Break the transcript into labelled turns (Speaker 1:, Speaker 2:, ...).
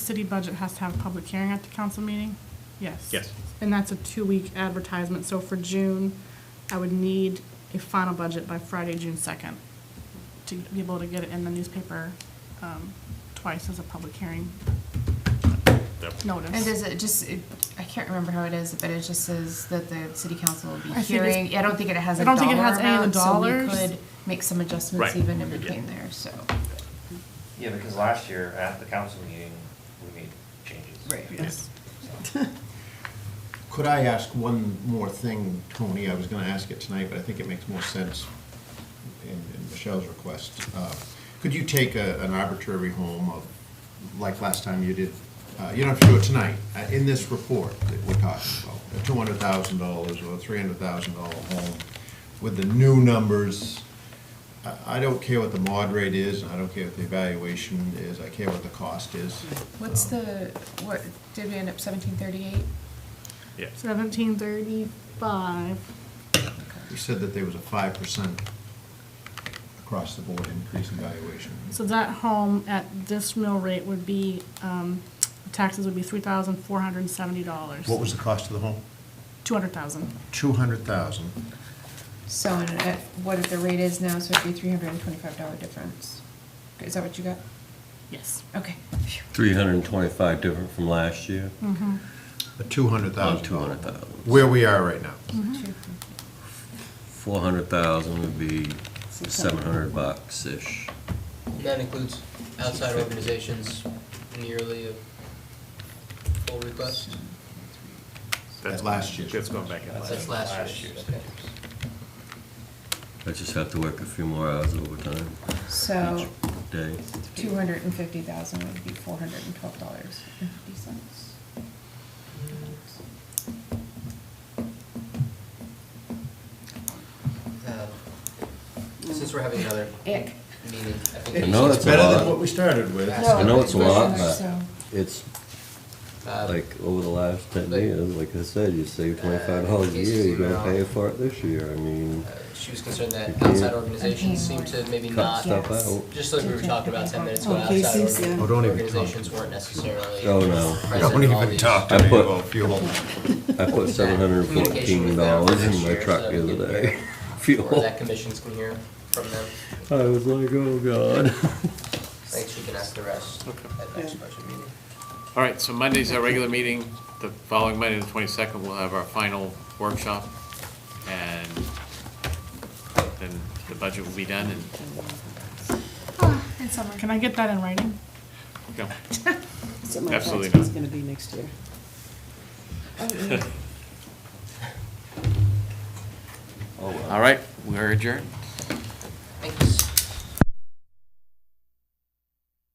Speaker 1: city budget has to have a public hearing at the council meeting? Yes.
Speaker 2: Yes.
Speaker 1: And that's a two-week advertisement, so for June, I would need a final budget by Friday, June second, to be able to get it in the newspaper, um, twice as a public hearing
Speaker 2: Yep.
Speaker 1: notice.
Speaker 3: And does it just, it- I can't remember how it is, but it just says that the city council will be
Speaker 1: I think it's-
Speaker 3: hearing, I don't think it has
Speaker 1: I
Speaker 3: a
Speaker 1: don't
Speaker 3: dollar
Speaker 1: think it has any of the
Speaker 3: amount, so we
Speaker 1: dollars.
Speaker 3: could make some adjustments
Speaker 2: Right.
Speaker 3: even in
Speaker 2: Yeah.
Speaker 3: between there, so.
Speaker 4: Yeah, because last year at the council meeting, we made changes.
Speaker 1: Yes.
Speaker 4: So,
Speaker 5: Could I ask one more thing, Tony? I was going to ask it tonight, but I think it makes more sense in in Michelle's request. Uh, Could you take a- an arbitrary home of, like last time you did, uh, you don't have to do it tonight, uh, in this report that we're talking about, a two hundred thousand dollars or a three hundred thousand dollar home with the new numbers? I- I don't care what the mod rate is, and I don't care what the evaluation is, I care what the cost is.
Speaker 3: What's
Speaker 5: Um,
Speaker 3: the, what, did we end up seventeen thirty-eight?
Speaker 2: Yeah.
Speaker 1: Seventeen thirty-five,
Speaker 5: You said that there was a five percent across the board increase in valuation.
Speaker 1: so that home at this mill rate would be, um, taxes would be three thousand four hundred and seventy dollars.
Speaker 5: What was the cost of the home?
Speaker 1: Two hundred thousand.
Speaker 5: Two hundred thousand.
Speaker 3: So, and at what if the rate is now, so it'd be three hundred and twenty-five dollar difference. Is that what you got?
Speaker 1: Yes.
Speaker 3: Okay. Phew.
Speaker 6: 325 different from last year?
Speaker 1: Mm-hmm.
Speaker 5: A two hundred
Speaker 6: Oh,
Speaker 5: thousand.
Speaker 6: $200,000.
Speaker 5: Where we are right now.
Speaker 3: Two.
Speaker 6: 400,000 would be 700 bucks-ish.
Speaker 7: That includes outside organizations nearly a full request?
Speaker 2: That's
Speaker 5: At last year's.
Speaker 2: That's going back in last.
Speaker 7: That's last
Speaker 4: Last
Speaker 7: year's,
Speaker 4: year's.
Speaker 7: okay.
Speaker 6: I just have to work a few more hours of overtime
Speaker 3: So,
Speaker 6: each day.
Speaker 3: two hundred and fifty thousand would be four hundred and twelve dollars and fifty cents.
Speaker 7: Uh, Since we're having another
Speaker 3: Ick.
Speaker 7: meeting, I think.
Speaker 6: I know
Speaker 5: It's
Speaker 6: that's a
Speaker 5: better than
Speaker 6: lot.
Speaker 5: what we started with.
Speaker 6: I know it's a lot,
Speaker 3: So-
Speaker 6: but it's
Speaker 7: uh,
Speaker 6: like over the last 10
Speaker 7: like-
Speaker 6: years, like I said, you save
Speaker 7: Uh,
Speaker 6: $25 a year,
Speaker 7: cases
Speaker 6: you're
Speaker 7: where
Speaker 6: gonna pay
Speaker 7: I'll-
Speaker 6: for it this year. I mean,
Speaker 7: uh, She was concerned
Speaker 6: You
Speaker 7: that
Speaker 6: can't
Speaker 7: outside organizations seem to maybe
Speaker 6: cut
Speaker 7: not,
Speaker 6: stuff
Speaker 3: yes.
Speaker 6: out.
Speaker 7: just like we were talking about ten minutes ago,
Speaker 8: Oh,
Speaker 7: outside
Speaker 8: cases, yeah.
Speaker 5: Oh,
Speaker 7: org-
Speaker 5: don't even
Speaker 7: organizations weren't necessarily.
Speaker 6: Oh, no.
Speaker 7: present in all these-
Speaker 6: to me about
Speaker 5: fuel.
Speaker 6: I put
Speaker 7: Communication with them
Speaker 6: $714 in my
Speaker 7: next
Speaker 6: truck
Speaker 7: year,
Speaker 6: the
Speaker 7: so we
Speaker 6: other
Speaker 7: can
Speaker 6: day.
Speaker 7: hear- Or
Speaker 6: Fuel.
Speaker 7: that commissions can hear from them.
Speaker 6: I was like, oh, God.
Speaker 7: I think she can ask the rest at next
Speaker 8: Yeah.
Speaker 7: budget meeting.
Speaker 2: All right, so Monday's our regular meeting. The following Monday, the 22nd, we'll have our final workshop. And then the budget will be done and,
Speaker 1: It's summer. Can I get that in writing?
Speaker 2: you know,
Speaker 8: Something like
Speaker 2: Absolutely
Speaker 8: that's what
Speaker 2: not.
Speaker 8: It's gonna be next year. Oh,
Speaker 2: All right, we're adjourned.